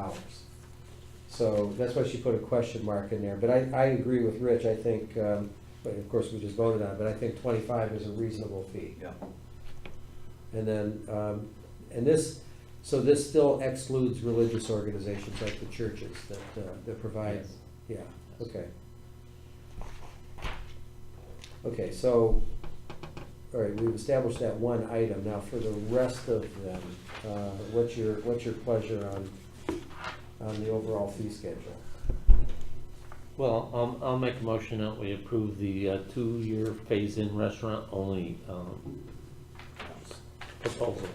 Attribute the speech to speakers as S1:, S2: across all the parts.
S1: dollars. So that's why she put a question mark in there, but I, I agree with Rich, I think, um, but of course, we just voted on, it, but I think twenty-five is a reasonable fee.
S2: Yeah.
S1: And then, um, and this, so this still excludes religious organizations like the churches that, uh, that provide,
S2: Yes.
S1: yeah, okay. Okay, so, all right, we've established that one item, now for the rest of them, uh, what's your, what's your pleasure on, on the overall fee schedule?
S3: Well, um, I'll make a motion that we approve the uh, two-year phase-in restaurant only, um, proposal.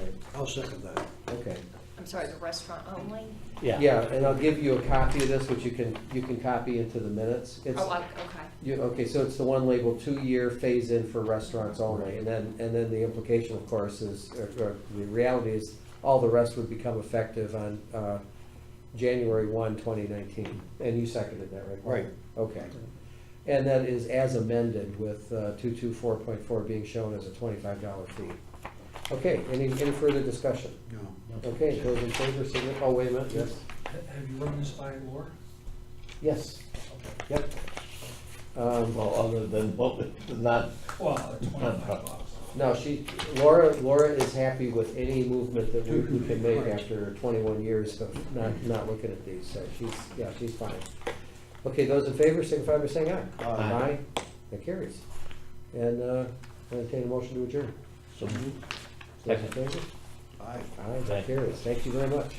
S1: Right,
S4: I'll second that.
S1: okay.
S5: I'm sorry, the restaurant only?
S3: Yeah.
S1: Yeah, and I'll give you a copy of this, which you can, you can copy into the minutes. It's-
S5: Oh, I- okay.
S1: You, okay, so it's the one labeled two-year phase-in for restaurants only, and then, and then the implication, of course, is, or, or the reality is, all the rest would become effective on, uh, January one, twenty nineteen, and you seconded that, right? Paul?
S4: Right.
S1: Okay, and that is as amended with, uh, two-two-four-point-four being shown as a twenty-five dollar fee. Okay, any, any further discussion?
S4: No.
S1: Okay, those in favor, signify, oh, wait a minute, yes?
S6: Have you run this by Laura?
S1: Yes, yep. Um,
S3: Well, other than, well, not,
S6: Well, uh, twenty-five bucks.
S1: No, she, Laura, Laura is happy with any movement that we we can make after twenty-one years of not, not looking at these, so she's, yeah, she's fine. Okay, those in favor, signify by saying aye.
S3: Aye.
S1: Aye, that carries. And, uh, entertain a motion to adjourn.
S3: so moved.
S1: Those in
S3: Second.
S1: favor?
S4: Aye.
S1: Aye, that carries, thank you very much.